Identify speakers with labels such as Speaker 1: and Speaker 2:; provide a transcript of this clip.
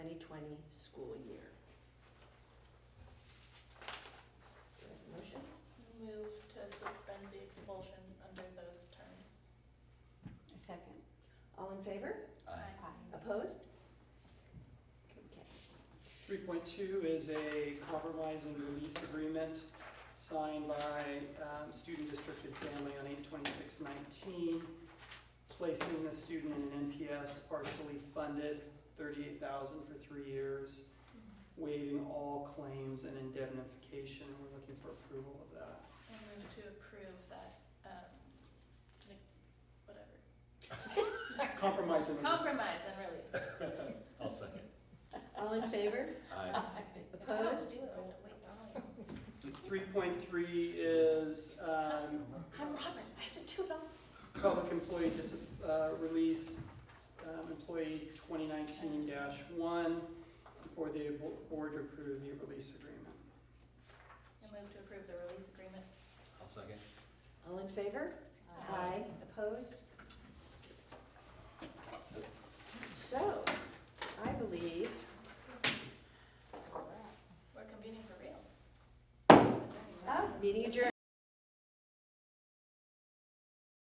Speaker 1: twenty school year. Do I have a motion?
Speaker 2: Move to suspend the expulsion under those terms.
Speaker 3: A second.
Speaker 1: All in favor?
Speaker 4: Aye.
Speaker 1: Opposed? Okay.
Speaker 5: Three point two is a compromise and release agreement signed by um, student districted family on eight twenty-six nineteen, placing the student in an NPS partially funded, thirty-eight thousand for three years, waiving all claims and indemnification. We're looking for approval of that.
Speaker 2: I move to approve that, um, ne- whatever.
Speaker 5: Compromise and release.
Speaker 2: Compromise and release.
Speaker 4: I'll second.
Speaker 1: All in favor?
Speaker 4: Aye.
Speaker 2: It's hard to
Speaker 1: Opposed?
Speaker 2: do it, I have to wait all night.
Speaker 5: Three point three is um,
Speaker 2: I'm Robert, I have to do it all.
Speaker 5: Public employee dis, uh, release, um, employee twenty nineteen one, for the bo- board to approve the release agreement.
Speaker 2: I move to approve the release agreement.
Speaker 4: I'll second.
Speaker 1: All in favor? Opposed? So, I believe
Speaker 2: We're convening for real. Oh,
Speaker 1: Meeting adjourned.